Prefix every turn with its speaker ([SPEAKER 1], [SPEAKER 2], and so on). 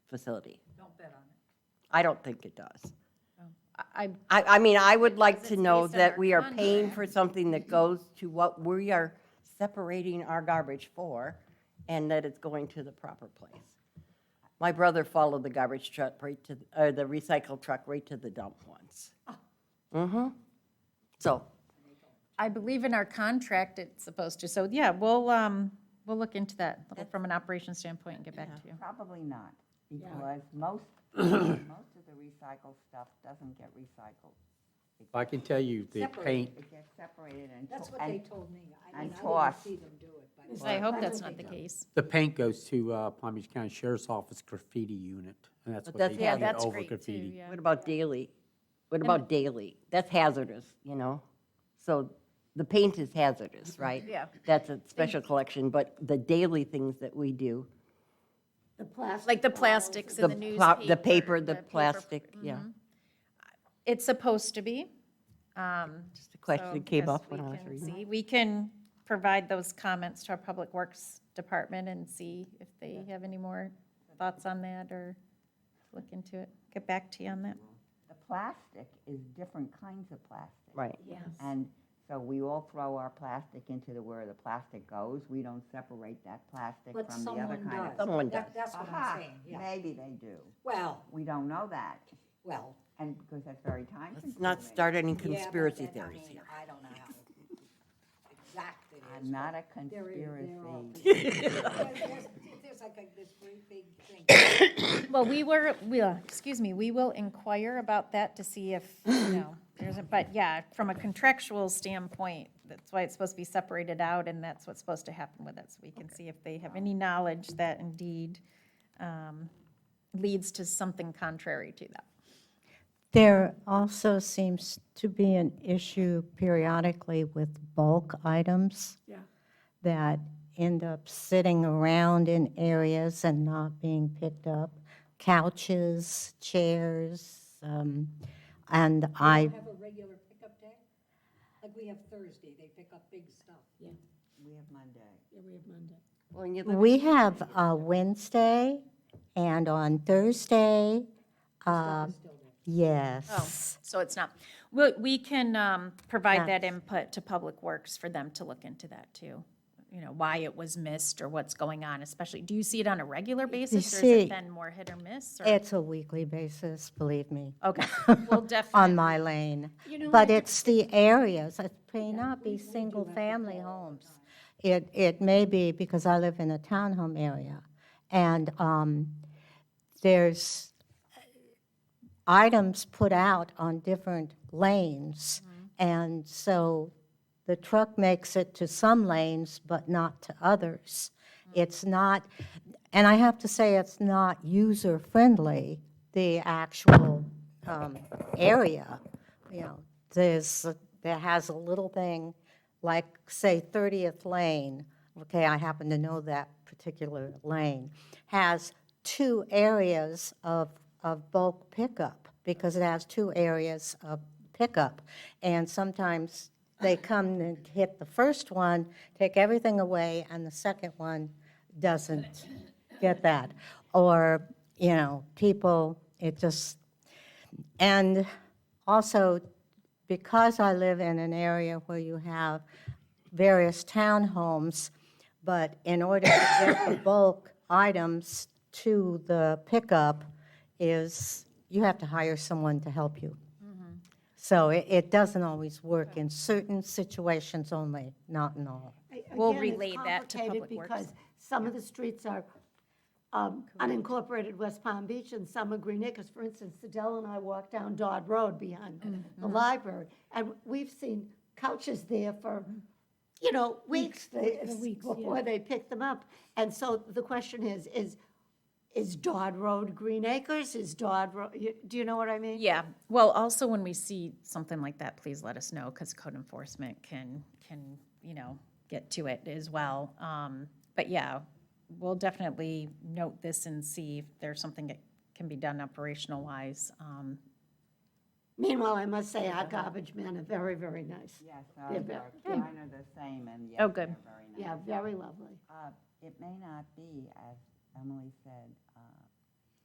[SPEAKER 1] facility.
[SPEAKER 2] Don't bet on it.
[SPEAKER 1] I don't think it does.
[SPEAKER 3] I,
[SPEAKER 1] I, I mean, I would like
[SPEAKER 3] Because
[SPEAKER 1] to
[SPEAKER 3] it's
[SPEAKER 1] know
[SPEAKER 3] based on
[SPEAKER 1] that
[SPEAKER 3] our
[SPEAKER 1] we are paying for something that goes to what we are separating our garbage for, and that it's going to the proper place. My brother followed the garbage truck right to, or the recycle truck right to the dump once. Mm-hmm. So,
[SPEAKER 3] I believe in our contract it's supposed to, so yeah, we'll, um, we'll look into that little from an operations standpoint and get back to you.
[SPEAKER 4] Probably not, because most, most of the recycled stuff doesn't get recycled.
[SPEAKER 5] I can tell you, the
[SPEAKER 2] Separate.
[SPEAKER 5] paint,
[SPEAKER 4] It gets separated and.
[SPEAKER 2] That's
[SPEAKER 4] to-
[SPEAKER 2] what they
[SPEAKER 4] and-
[SPEAKER 2] told me. I
[SPEAKER 4] and
[SPEAKER 2] mean, I didn't
[SPEAKER 4] tossed.
[SPEAKER 2] see them do it, but.
[SPEAKER 3] I hope that's not the case.
[SPEAKER 5] the paint goes to uh, Palm Beach County Sheriff's Office graffiti unit, and that's
[SPEAKER 1] But
[SPEAKER 5] what
[SPEAKER 1] that's-
[SPEAKER 5] they
[SPEAKER 1] yeah,
[SPEAKER 5] get
[SPEAKER 3] that's
[SPEAKER 5] over
[SPEAKER 3] great, too,
[SPEAKER 5] graffiti.
[SPEAKER 3] yeah.
[SPEAKER 1] what about daily? What about daily? That's hazardous, you know? So the paint is hazardous, right?
[SPEAKER 3] Mm-hmm. Yeah.
[SPEAKER 1] That's a special collection, but the daily things that we do,
[SPEAKER 2] The plastic.
[SPEAKER 3] Like the plastics
[SPEAKER 1] the,
[SPEAKER 3] and the
[SPEAKER 1] pla-
[SPEAKER 3] newspaper.
[SPEAKER 1] the paper, the plastic, yeah.
[SPEAKER 3] mm-hmm. It's supposed to be. um,
[SPEAKER 1] Just a question
[SPEAKER 3] so
[SPEAKER 1] that came
[SPEAKER 3] yes,
[SPEAKER 1] up
[SPEAKER 3] we
[SPEAKER 1] when I was
[SPEAKER 3] can
[SPEAKER 1] reading.
[SPEAKER 3] see- We can provide those comments to our Public Works Department and see if they have any more thoughts on that or look into it. Get back to you on that.
[SPEAKER 4] The plastic is different kinds of plastic.
[SPEAKER 1] Right.
[SPEAKER 4] And so we all throw our plastic into the, where the plastic goes. We don't separate that plastic
[SPEAKER 2] But
[SPEAKER 4] from the other
[SPEAKER 2] someone
[SPEAKER 4] kind
[SPEAKER 2] does.
[SPEAKER 4] of.
[SPEAKER 1] Someone does.
[SPEAKER 2] That- That's what
[SPEAKER 4] Aha,
[SPEAKER 2] I'm saying, yeah.
[SPEAKER 4] Maybe they do.
[SPEAKER 2] Well,
[SPEAKER 4] We don't know that,
[SPEAKER 2] well.
[SPEAKER 4] and because that's very time
[SPEAKER 1] Let's
[SPEAKER 4] consuming.
[SPEAKER 1] not start any
[SPEAKER 2] yeah, but
[SPEAKER 1] conspiracy
[SPEAKER 2] then, I
[SPEAKER 1] theories
[SPEAKER 2] mean,
[SPEAKER 1] here.
[SPEAKER 2] I don't know how exact it is.
[SPEAKER 4] I'm not a
[SPEAKER 2] but there is- there are-
[SPEAKER 4] conspiracy.
[SPEAKER 2] There's there's like a- this great big thing.
[SPEAKER 3] Well, we were, we, uh, excuse me, we will inquire about that to see if, you know, there's a, but yeah, from a contractual standpoint, that's why it's supposed to be separated out, and that's what's supposed to happen with it, so we can see if they have any knowledge that indeed um, leads to something contrary to that.
[SPEAKER 6] There also seems to be an issue periodically with bulk items that end up sitting around in areas and not being picked up. Couches, chairs, um, and I,
[SPEAKER 2] Have a regular pickup day? Like we have Thursday, they pick up big stuff.
[SPEAKER 4] We have Monday.
[SPEAKER 1] Well, and you look-
[SPEAKER 6] we have uh, Wednesday and on Thursday, uh,
[SPEAKER 1] Oh,
[SPEAKER 6] yes.
[SPEAKER 3] Oh, So it's not, we, we can um, provide that
[SPEAKER 6] Yes.
[SPEAKER 3] input to Public Works for them to look into that too. You know, why it was missed or what's going on, especially, do you see it on a regular basis, or has
[SPEAKER 6] see-
[SPEAKER 3] it been more hit or miss? or-
[SPEAKER 6] It's a weekly basis, believe me.
[SPEAKER 3] Okay, well,
[SPEAKER 6] on
[SPEAKER 3] definitely,
[SPEAKER 6] my lane. But it's the areas, it may not be single-family homes. It, it may be because I live in a townhome area. And um, there's items put out on different lanes. And so the truck makes it to some lanes, but not to others. It's not, and I have to say, it's not user-friendly, the actual um, area. You know, there's, there has a little thing, like, say, 30th Lane, okay, I happen to know that particular lane, has two areas of, of bulk pickup, because it has two areas of pickup. And sometimes they come and hit the first one, take everything away, and the second one doesn't get that. Or, you know, people, it just, and also, because I live in an area where you have various townhomes, but in order to get the bulk items to the pickup is, you have to hire someone to help you. So it, it doesn't always work in certain situations only, not in all.
[SPEAKER 3] We'll
[SPEAKER 7] Again, it's
[SPEAKER 3] relay that to
[SPEAKER 7] complicated
[SPEAKER 3] Public Works.
[SPEAKER 7] Because some of the streets are um, unincorporated West Palm Beach and some are Green Acres. For instance, Sedell and I walked down Dodd Road behind
[SPEAKER 3] Mm-hmm.
[SPEAKER 7] the library. And we've seen couches there for,
[SPEAKER 3] Mm-hmm.
[SPEAKER 7] you know, weeks they- before they pick them up. And so the question is, is, is Dodd Road Green Acres? Is Dodd Road, do you know what I mean?
[SPEAKER 3] yeah. Well, also when we see something like that, please let us know, because code enforcement can, can, you know, get to it as well. Um, But yeah, we'll definitely note this and see if there's something that can be done operational wise. Um,
[SPEAKER 7] Meanwhile, I must say our garbage men are very, very nice.
[SPEAKER 4] Yes,
[SPEAKER 7] Yeah,
[SPEAKER 4] ours
[SPEAKER 7] but-
[SPEAKER 4] are kind of the same, and yes,
[SPEAKER 3] Oh,
[SPEAKER 4] they're
[SPEAKER 3] good.
[SPEAKER 4] very nice.
[SPEAKER 7] Yeah, very lovely.
[SPEAKER 4] Uh, It may not be, as Emily said,